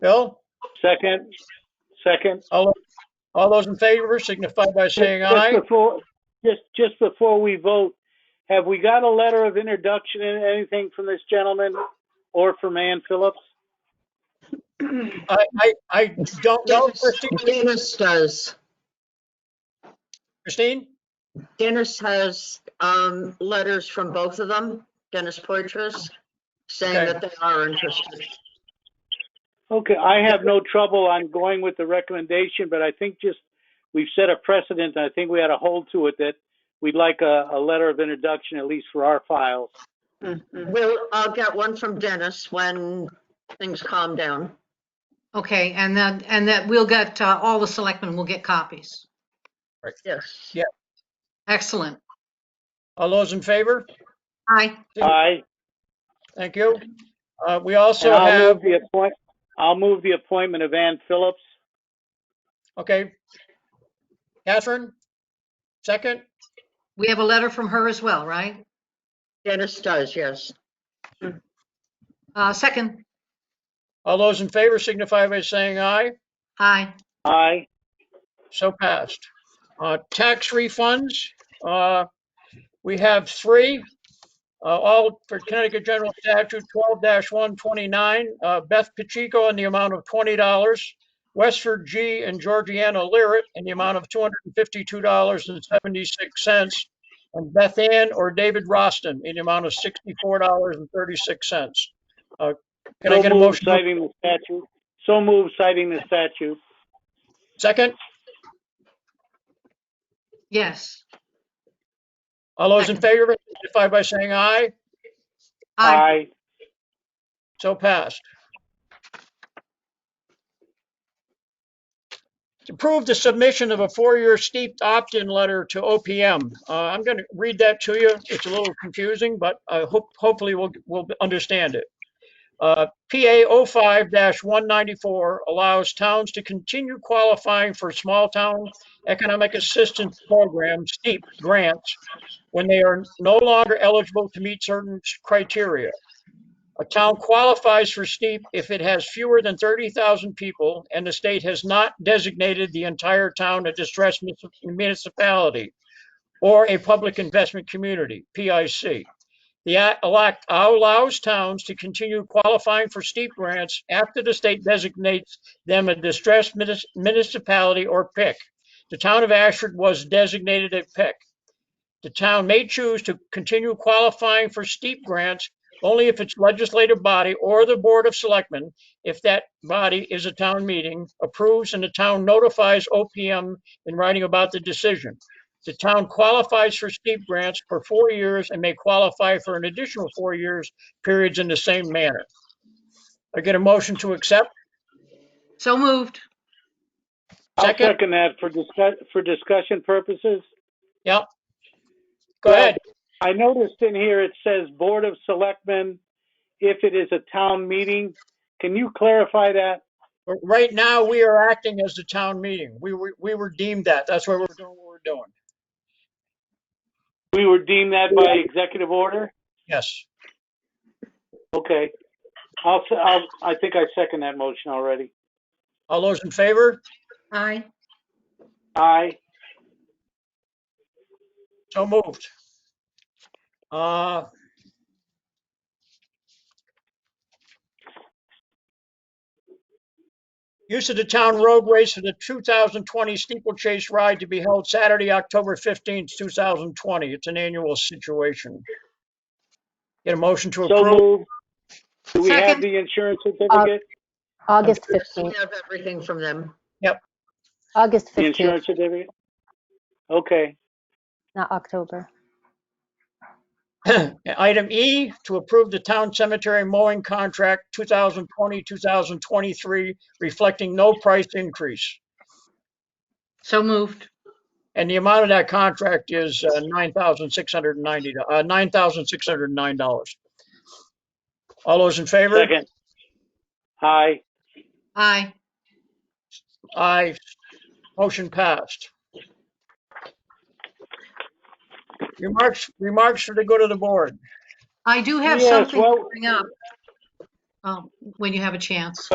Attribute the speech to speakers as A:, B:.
A: Bill,
B: Second, second.
A: all, all those in favor signify by saying
B: Just- just
A: aye.
B: Before, just, just before we vote, have we got a letter of introduction and anything from this gentleman or from Ann Phillips?
A: I, I, I don't know, Christine.
C: Dennis does.
A: Christine?
C: Dennis has um, letters from both of them, Dennis Poitras, saying
A: Okay.
C: that they are interested.
B: Okay, I have no trouble on going with the recommendation, but I think just, we've set a precedent, and I think we had a hold to it that we'd like a, a letter of introduction, at least for our files.
C: Well, I'll get one from Dennis when things calm down.
D: Okay, and then, and that we'll get, uh, all the selectmen will get copies.
C: Yes.
D: Excellent.
A: All those in favor?
D: Aye.
B: Aye.
A: Thank you. Uh, we also
B: And I'll
A: have,
B: move the appoint, I'll move the appointment of Ann Phillips.
A: okay. Catherine? Second?
D: We have a letter from her as well, right?
C: Dennis does, yes.
D: Uh, second,
A: All those in favor signify by saying aye.
D: aye.
B: Aye.
A: So passed. Uh, Tax refunds, uh, we have three, uh, all for Connecticut General Statute 12-129, uh, Beth Pacheco in the amount of $20, Westford G. and Georgiana Lyric in the amount of $252.76, and Beth Ann or David Roston in the amount of $64.36. Uh, Can I
B: So
A: get a
B: moved,
A: motion? to-
B: Citing the statute. So moved, citing the statute.
A: Second?
D: Yes.
A: All those in favor, signify by saying aye.
D: Aye.
A: So passed. To approve the submission of a four-year steeped opt-in letter to OPM. Uh, I'm going to read that to you. It's a little confusing, but I hope, hopefully we'll, we'll understand it. Uh, PA 05-194 allows towns to continue qualifying for small town economic assistance program, STEEP grants, when they are no longer eligible to meet certain criteria. A town qualifies for steep if it has fewer than 30,000 people and the state has not designated the entire town a distressed munici- municipality or a public investment community, PIC. The act elect- allows towns to continue qualifying for steep grants after the state designates them a distressed munis- municipality or PIC. The town of Ashford was designated a PIC. The town may choose to continue qualifying for steep grants only if its legislative body or the Board of Selectmen, if that body is a town meeting, approves and the town notifies OPM in writing about the decision. The town qualifies for steep grants for four years and may qualify for an additional four years periods in the same manner. I get a motion to accept.
D: So moved.
B: I'll
A: Second.
B: second that for discuss, for discussion purposes.
A: Yep. Go ahead.
B: I noticed in here it says Board of Selectmen, if it is a town meeting. Can you clarify that?
A: Right now, we are acting as the town meeting. We were, we were deemed that. That's why we're doing what we're doing.
B: We were deemed that by executive order?
A: Yes.
B: Okay. I'll, se- I'll, I think I second that motion already.
A: All those in favor?
D: Aye.
B: Aye.
A: So moved. Uh, Use of the town roadways for the 2020 steeplechase ride to be held Saturday, October 15th, 2020. It's an annual situation. Get a motion to
B: So
A: approve?
B: moved. Do we have
D: Second.
B: the insurance certificate?
E: August
C: We
E: 15th,
C: have everything from them.
E: August
B: The
E: 15th,
B: insurance certificate? Okay.
E: not October.
A: Item E, to approve the town cemetery mowing contract 2020, 2023, reflecting no price increase.
D: So moved.
A: And the amount of that contract is uh, $9,690, uh, $9,609. All those in favor?
B: Second. Aye.
D: Aye.
A: Aye. Motion passed. Remarks, remarks for the good of the board.
D: I do have
B: Yes,
D: something
B: well-
D: coming up. Um, when you have a chance.